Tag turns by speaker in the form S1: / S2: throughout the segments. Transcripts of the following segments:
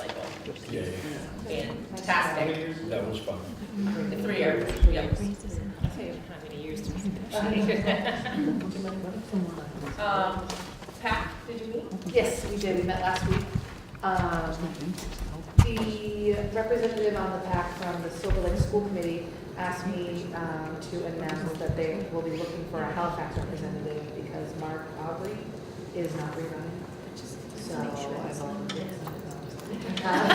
S1: oh,
S2: directors.
S3: Yeah,
S1: and TASPIC,
S3: yeah, that was fun.
S1: the three are, yep. How many years do we Um, Pat, did you meet?
S2: Yes, we did, we met last week. Um, The representative on the PAC from the Silver Lake School Committee asked me um, to announce that they will be looking for a Halifax representative because Mark Aubrey is not rerunning. So I volunteered. Um,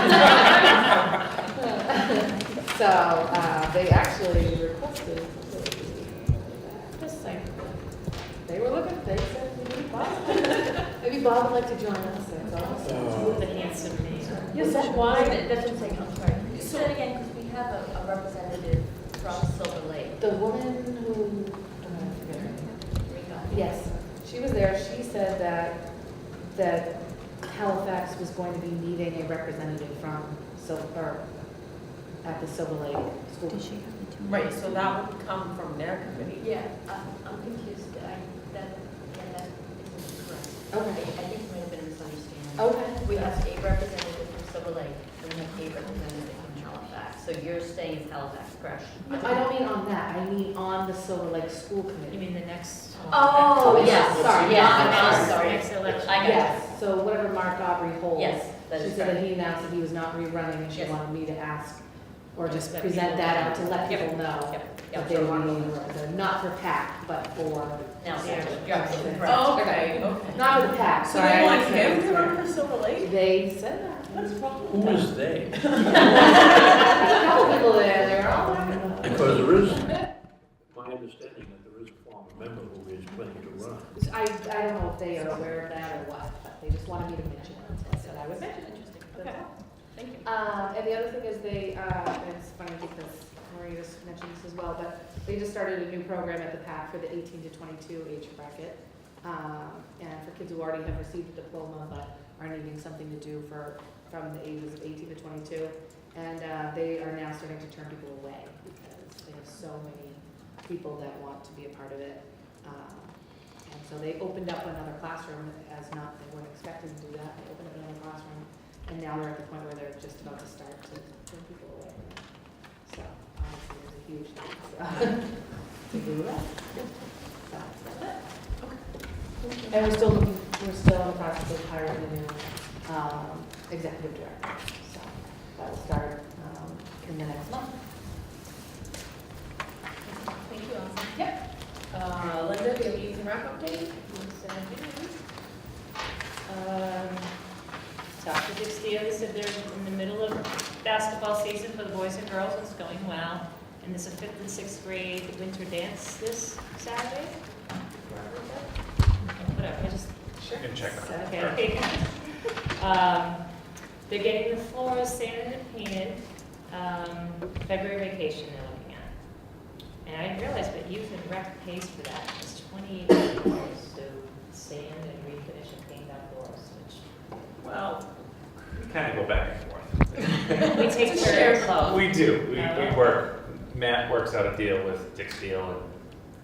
S2: So uh, they actually requested. Just like, they were looking, they said, we need Bob. Maybe Bob would like to join us, that's awesome.
S3: Oh. Uh,
S1: The handsome man.
S2: Yes, that's why, that's what I'm saying, I'm sorry.
S4: Say it again, because we have a a representative from Silver Lake.
S2: The woman who, uh, I forget her name. yes, she was there, she said that, that Halifax was going to be needing a representative from Silver, at the Silver Lake School.
S1: Right, so that would come from their committee.
S4: Yeah, I- I'm confused, I, that, yeah, that isn't correct. I
S2: Okay,
S4: I think it might have been a misunderstanding.
S2: okay.
S4: We have a representative from Silver Lake, and we have a representative from Halifax. So you're saying it's Halifax, correct?
S2: I don't mean on that, I mean on the Silver Lake School Committee.
S1: mean the next?
S4: Oh, yes,
S2: Sorry,
S4: sorry, yeah,
S2: not
S4: I'm
S2: us.
S4: sorry.
S1: Next election.
S4: I got
S2: Yes, so whatever Mark Aubrey
S4: you.
S2: holds.
S4: Yes, that
S2: She
S4: is
S2: said that
S4: correct.
S2: he announced that he was not rerunning and she
S4: Yes.
S2: wanted me to ask, or
S1: Just
S2: just
S1: let
S2: present
S1: people
S2: that
S1: know.
S2: out to let
S1: Yep.
S2: people know
S1: Yep.
S2: that
S4: Yep.
S2: they were being, rerun- not for PAC, but for,
S4: No, you're absolutely correct.
S1: Oh, okay, okay.
S2: not for the PAC,
S1: So
S2: sorry.
S1: they
S2: I
S1: want
S2: didn't say
S1: him
S2: it
S1: to
S2: was
S1: run for Silver
S2: PAC.
S1: Lake?
S2: They said that.
S1: What is wrong
S3: Who is they?
S2: There's a couple people there, they're all there.
S3: Because there is, my understanding that there is a former member who is planning to run.
S2: I, I don't know if they are aware of that or what, but they just wanted me to mention it, so I said I would mention it. That's
S1: Okay,
S2: all.
S1: thank you.
S2: Um, and the other thing is they, uh, and it's funny because Maria just mentioned this as well, but they just started a new program at the PAC for the eighteen to twenty-two age bracket. Um, and for kids who already have received a diploma but are needing something to do for, from the ages of eighteen to twenty-two. And, uh, they are now starting to turn people away because they have so many people that want to be a part of it. Um, And so they opened up another classroom as not, they weren't expecting to do that, they opened up another classroom and now we're at the point where they're just about to start to turn people away. So obviously, there's a huge need so, to do that. So, that's it. And we're still, looking- we're still in the process of hiring the new um, executive director. So that will start um, in the next month.
S1: Thank you, Allison. Yep. Uh, Linda, do you have anything wrap update? Uh,
S5: Um, Dr. Dixdale said they're in the middle of basketball season for the boys and girls, it's going well. And there's a fifth and sixth grade winter dance this Saturday? Whatever, I just
S2: Sure.
S6: can check on
S2: So-
S5: Okay. Um, They're getting the floors sanded and painted, um, February vacation they're looking at. And I didn't realize, but youth and rec pays for that, it's twenty-eight dollars to sand and refinish and paint out floors, which
S1: Well,
S6: Kind of go back and forth.
S5: we take
S1: It's a
S5: very
S1: shared
S5: close.
S6: We do, we,
S5: Yeah.
S6: we work, Matt works out a deal with Dick Steele, and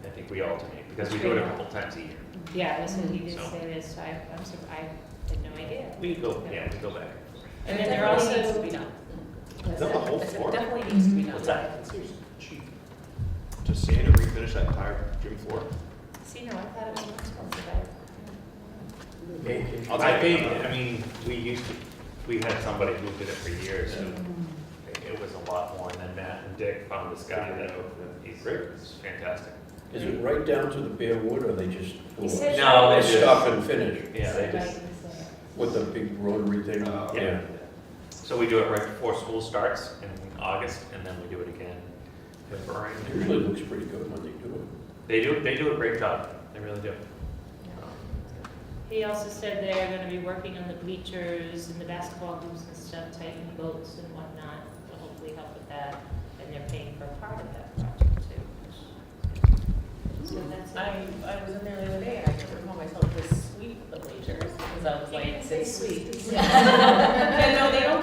S6: I think we alternate, because we do it a couple times a year.
S5: Yeah, that's what he did
S6: So-
S5: say this, so I, I'm surprised, I had no idea.
S6: We go, yeah, we go back.
S5: And then they're also. Mm.
S1: It definitely needs to be done.
S6: Is that the whole
S1: It
S6: floor?
S1: Definitely needs to be done.
S6: What's that?
S7: Cheap. To sand and refinish that entire gym floor?
S5: See, no, I thought it was more expensive, I.
S6: I'll take it. I mean, we used to, we had somebody who did it for years, and it was a lot more, and then Matt and Dick found this guy that, he's, he's fantastic.
S3: Is it right down to the bare wood or they just?
S5: He said-
S6: No,
S3: They
S6: they
S3: stop
S6: just,
S3: and finish
S6: yeah, they just,
S3: with the big rotary thing.
S7: Oh.
S6: Yeah. So we do it right before school starts in August, and then we do it again in February.
S3: It usually looks pretty good when they do
S6: They do, they do a great job, they really do.
S5: He also said they're gonna be working on the bleachers and the basketball hoops and stuff, tightening bolts and whatnot, to hopefully help with that. And they're paying for a part of that project too. So that's it.
S1: I, I was in there the other day, and I couldn't recall myself to sweep the bleachers, because I was like,
S5: You didn't say
S1: sweet.
S5: sweet.
S1: No, they don't